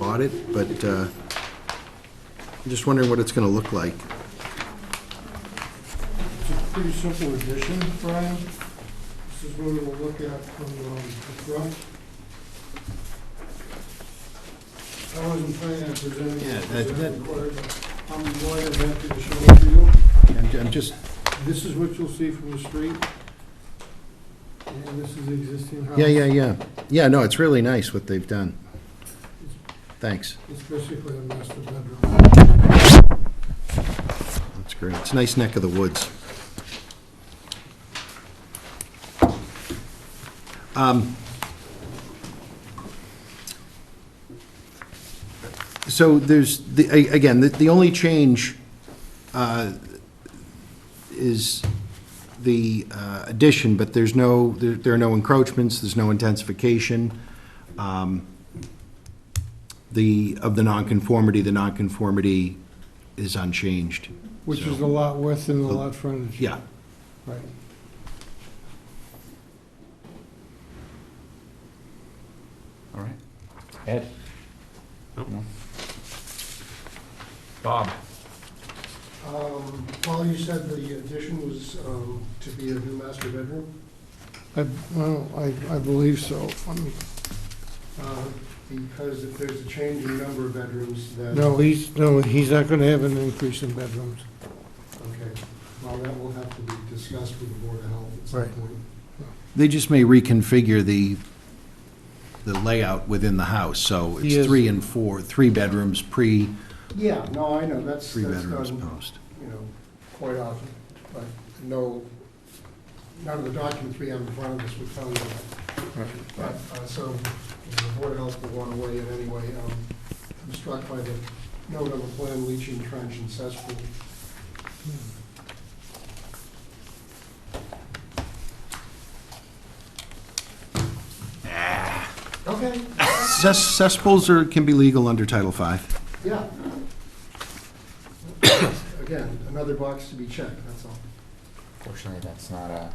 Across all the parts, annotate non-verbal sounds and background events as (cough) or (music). audit, but uh, I'm just wondering what it's going to look like. It's a pretty simple addition, Brian. This is what we'll look at from um, the front. I wasn't planning on presenting Yeah, it, that- because that- I'm required, but I'm more than happy to show it to you. I'm, I'm just, This is what you'll see from the street. And this is the existing house. yeah, yeah, yeah. Yeah, no, it's really nice what they've done. Thanks. It's basically a master bedroom. That's great. It's a nice neck of the woods. Um, So there's, the a- again, the the only change uh, is the uh, addition, but there's no, there there are no encroachments, there's no intensification Um, the, of the nonconformity, the nonconformity is unchanged. Which is So, the lot width and the lot frontage. Yeah, Right. All right. Ed? No? Bob? Um, Paul, you said the addition was um, to be a new master bedroom? I, well, I, I believe so. Let me- Uh, Because if there's a change in number of bedrooms, then... No, he's, no, he's not gonna have an increase in bedrooms. Okay, well, that will have to be discussed with the Board of Health at some Right. point. they just may reconfigure the, the layout within the house, so He is- it's three and four, three bedrooms pre, Yeah, no, I know, that's, three that's bedrooms um, done, post. you know, quite often, but no, none of the documents we have in front of us would tell you that. But, uh, so, you know, the Board of Health will want to weigh in anyway. Um, I'm struck by the note on the plan, leaching trench and cesspool. Okay, Cess- Cesspools are, can be legal under Title V. Yeah. (coughs) Again, another box to be checked, that's all. Fortunately, that's not uh, a,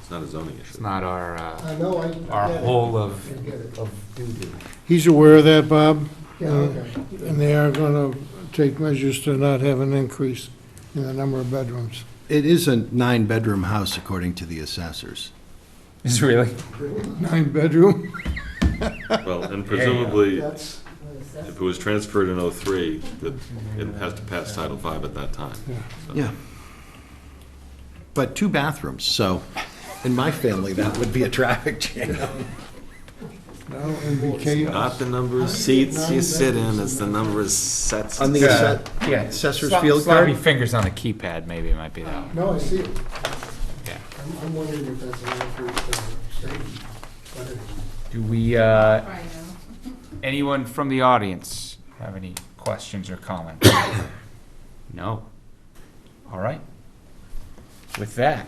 It's not a zoning it's issue. not our, uh, I know, I our get it. whole I of, get it. of doo-doo. He's aware of that, Bob, Yeah, okay. and they are gonna take measures to not have an increase in the number of bedrooms. It is a nine-bedroom house according to the assessors. Is it really? Nine bedroom? Well, and presumably, if That's, it was transferred in '03, that it has to pass Title V at that time. Yeah. But two bathrooms, so in my family, that would be a traffic jam. No, it'd be chaos. Not the number of seats you sit in, it's the number of sets. On the Yeah. asse- Yeah. assessor's Slap- field Sloppy card? fingers on the keypad, maybe, might be that one. no, I see it. Yeah. I'm, I'm wondering if that's an accurate uh, statement. but anyway. Do we, uh, I know. Anyone from the audience have any questions or comments? (coughs) No. All right. With that,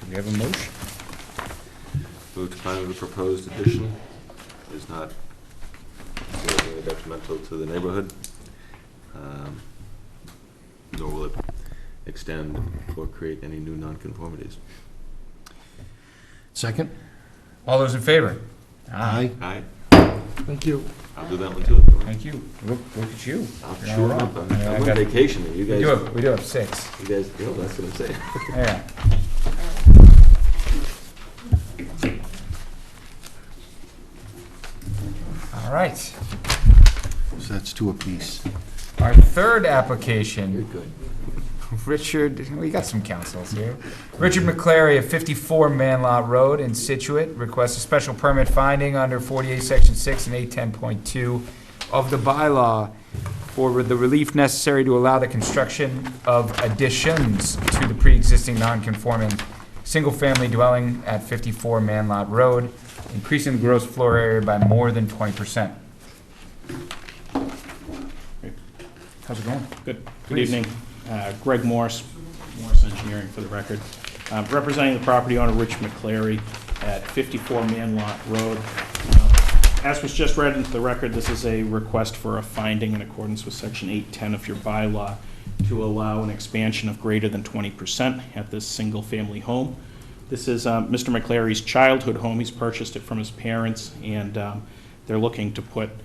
do we have a motion? Move to find that the proposed addition is not significantly detrimental to the neighborhood, um, nor will it extend or create any new nonconformities. Second? All those in favor? Aye. Aye, Thank you. I'll do that one too. don't worry. Thank you. Look, look at you. I'm You're sure, all I'm right. Yeah, I I'm got on it. vacation, We you do guys, have, we do have six. you guys, no, that's what I'm saying. Yeah. All right. So that's two apiece. Our third application. You're good. Richard, we got some councils here. Richard McClary of 54 Manlot Road in Situate requests a special permit finding under 48, Section 6 and 810.2 of the bylaw for the relief necessary to allow the construction of additions to the pre-existing non-conforming single-family dwelling at 54 Manlot Road, increasing the gross floor area by more than 20%. How's it going? Good, good Please. evening. Uh, Greg Morse, Morse Engineering for the record, Uh, representing the property owner, Rich McCleary, at 54 Manlock Road. Uh, As was just read into the record, this is a request for a finding in accordance with Section 810 of your bylaw to allow an expansion of greater than 20% at this single-family home. This is um, Mr. McCleary's childhood home. He's purchased it from his parents, and um, they're looking to put